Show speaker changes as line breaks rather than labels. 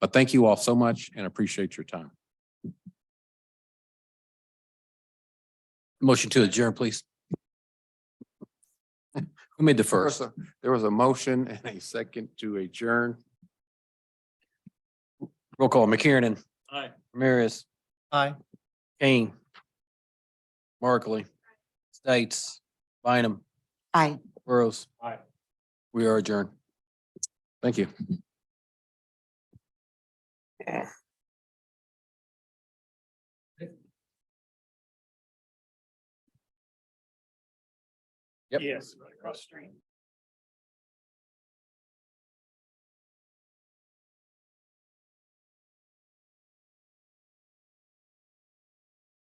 But thank you all so much and appreciate your time. Motion to adjourn, please. Who made the
There
first?
was a- There was a motion and a second to adjourn.
Roll call, McKiernan.
Aye.
Ramirez.
Aye.
Kane. Markley. States. Bynum.
Aye.
Burrows.
Aye.
We are adjourned. Thank you. Yep.
Yes, right across the street.